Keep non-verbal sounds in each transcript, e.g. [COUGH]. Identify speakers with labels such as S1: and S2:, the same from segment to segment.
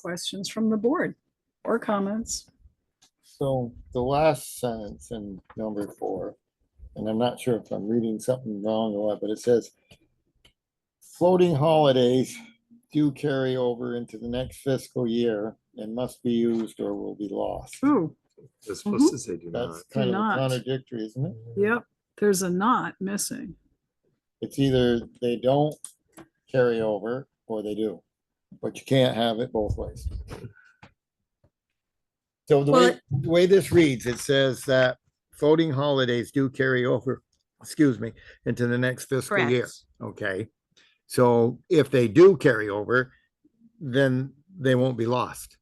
S1: questions from the board or comments?
S2: So the last sentence in number four, and I'm not sure if I'm reading something wrong or what, but it says floating holidays do carry over into the next fiscal year and must be used or will be lost.
S1: Ooh,
S3: It's supposed to say do not.
S2: That's kind of
S1: not.
S2: contradictory, isn't it?
S1: yep, there's a not missing.
S2: It's either they don't carry over or they do, but you can't have it both ways. So the way, the way this reads, it says that voting holidays do carry over, excuse me, into the next fiscal year.
S4: Correct.
S2: Okay, so if they do carry over, then they won't be lost.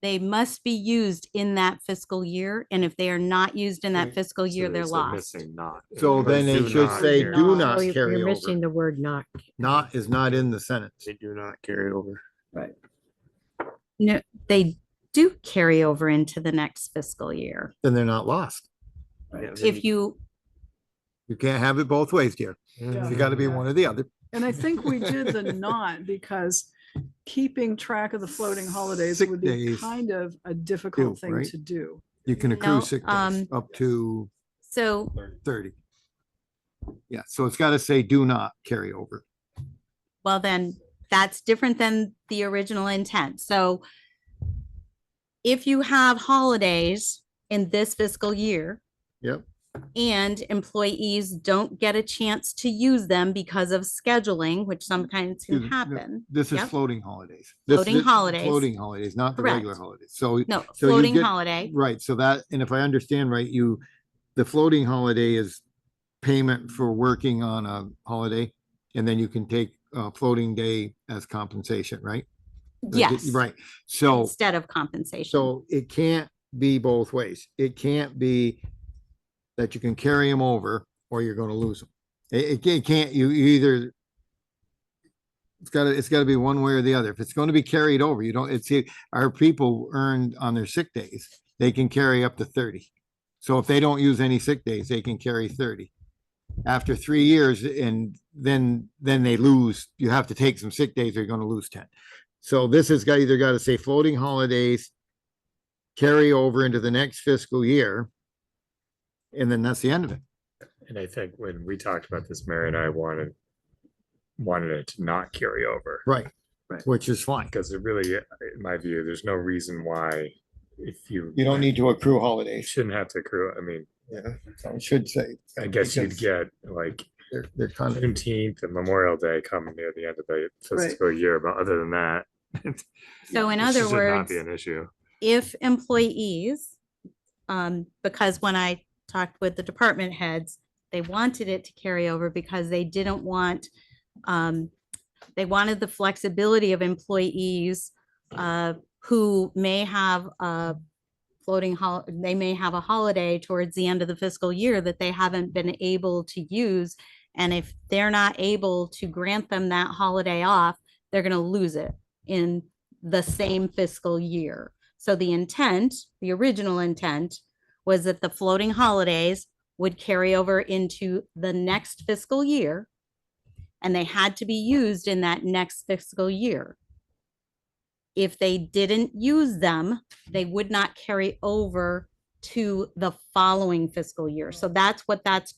S4: They must be used in that fiscal year, and if they are not used in that
S2: Mm.
S4: fiscal
S3: So
S4: year, they're
S3: there's a
S4: lost.
S3: Missing not.
S2: So
S3: Or
S2: then it
S3: do
S2: should
S3: not
S2: say
S3: carry
S2: do
S3: over.
S2: not
S5: Oh, you're-
S2: carry
S5: You're
S2: over.
S5: missing the word not.
S2: Not is not in the sentence.
S3: They do not carry over.
S4: No, they do carry over into the next fiscal year.
S2: Then they're not lost.
S1: right?
S4: If you,
S2: You can't have it both ways, dear. You gotta be one or the other.
S1: And I think we did the not because keeping track of the floating holidays
S2: Sick
S1: would be
S2: days.
S1: kind of a difficult
S2: Too,
S1: thing
S2: right?
S1: to do.
S2: You can
S4: No,
S2: accrue sick days
S4: um,
S2: up to
S4: so
S2: thirty. Yeah, so it's gotta say do not carry over.
S4: Well, then that's different than the original intent. So if you have holidays in this fiscal year.
S2: Yep.
S4: And employees don't get a chance to use them because of scheduling, which sometimes
S2: Excuse
S4: can
S2: me, no,
S4: happen.
S2: This is
S4: Yep.
S2: floating holidays. This-
S4: Floating
S2: this-
S4: holidays.
S2: Floating holidays, not the regular
S4: Correct.
S2: holidays. So,
S4: No,
S2: so you
S4: floating
S2: get-
S4: holiday.
S2: right, so that, and if I understand right, you, the floating holiday is payment for working on a holiday, and then you can take a floating day as compensation, right? Like,
S4: Yes.
S2: Right, so.
S4: Instead of compensation.
S2: So it can't be both ways. It can't be that you can carry them over or you're gonna lose them. It, it ca- can't, you you either it's gotta, it's gotta be one way or the other. If it's gonna be carried over, you don't, it's, our people earned on their sick days, they can carry up to thirty. So if they don't use any sick days, they can carry thirty. After three years and then, then they lose, you have to take some sick days, they're gonna lose ten. So this has got, either gotta say floating holidays carry over into the next fiscal year. And then that's the end of it.
S3: And I think when we talked about this, Mary and I wanted, wanted it to not carry over.
S2: Right.
S1: Right.
S2: Which is fine.
S3: Because it really, in my view, there's no reason why if you.
S2: You don't need to accrue
S3: You
S2: holidays.
S3: shouldn't have to accrue. I mean,
S2: Yeah, I should say.
S3: I guess you'd get like
S2: They're, they're kind of,
S3: Juneteenth and Memorial Day coming near the end of the fiscal year, but other than that. [LAUGHS]
S4: So in
S3: it
S4: other
S3: should not Be
S4: words-
S3: an issue.
S4: if employees, um, because when I talked with the department heads, they wanted it to carry over because they didn't want, um, they wanted the flexibility of employees, uh, who may have a floating hol, they may have a holiday towards the end of the fiscal year that they haven't been able to use. And if they're not able to grant them that holiday off, they're gonna lose it in the same fiscal year. So the intent, the original intent, was that the floating holidays would carry over into the next fiscal year. And they had to be used in that next fiscal year. If they didn't use them, they would not carry over to the following fiscal year. So that's what that's,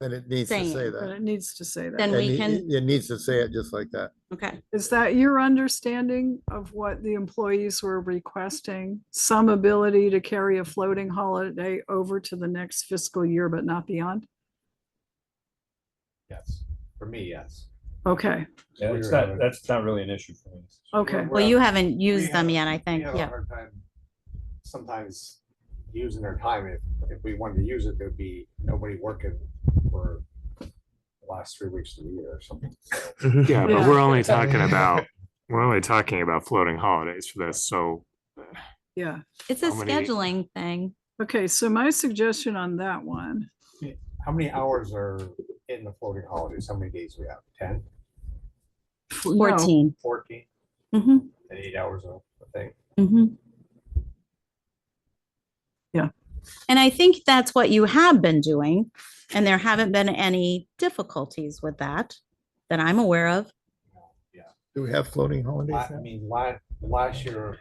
S2: but it needs to say
S4: saying,
S1: But it
S2: that.
S1: needs to say that.
S4: Then
S2: It
S4: we
S2: ne-
S4: can-
S2: It needs to say it just like that.
S4: okay,
S1: Is that your understanding of what the employees were requesting? Some ability to carry a floating holiday over to the next fiscal year, but not beyond?
S6: Yes, for me, yes.
S1: Okay,
S6: Yeah, it's not, that's not really an issue for me.
S1: Okay.
S6: We're- we're
S4: well, you
S6: having-
S4: haven't
S6: we
S4: used them
S6: have-
S4: yet, I
S6: we
S4: think,
S6: have a
S4: yeah.
S6: hard time Sometimes using our time, if, if we wanted to use it, there'd be nobody working for the last three weeks of the year or something.
S3: Yeah, but
S1: Yeah.
S3: we're only talking about, we're only talking about floating holidays for this, so.
S1: yeah.
S4: It's a
S3: How many-
S4: scheduling thing.
S1: Okay, so my suggestion on that one,
S6: How many hours are in the floating holidays? How many days we have? Ten,
S1: f- no,
S4: 14
S6: fourteen,
S4: Mm-hmm,
S6: and eight hours of the thing?
S4: mm-hmm.
S1: Yeah.
S4: And I think that's what you have been doing, and there haven't been any difficulties with that that I'm aware of.
S2: Do we have floating holidays?
S6: La- I
S2: now?
S6: mean, la- last year,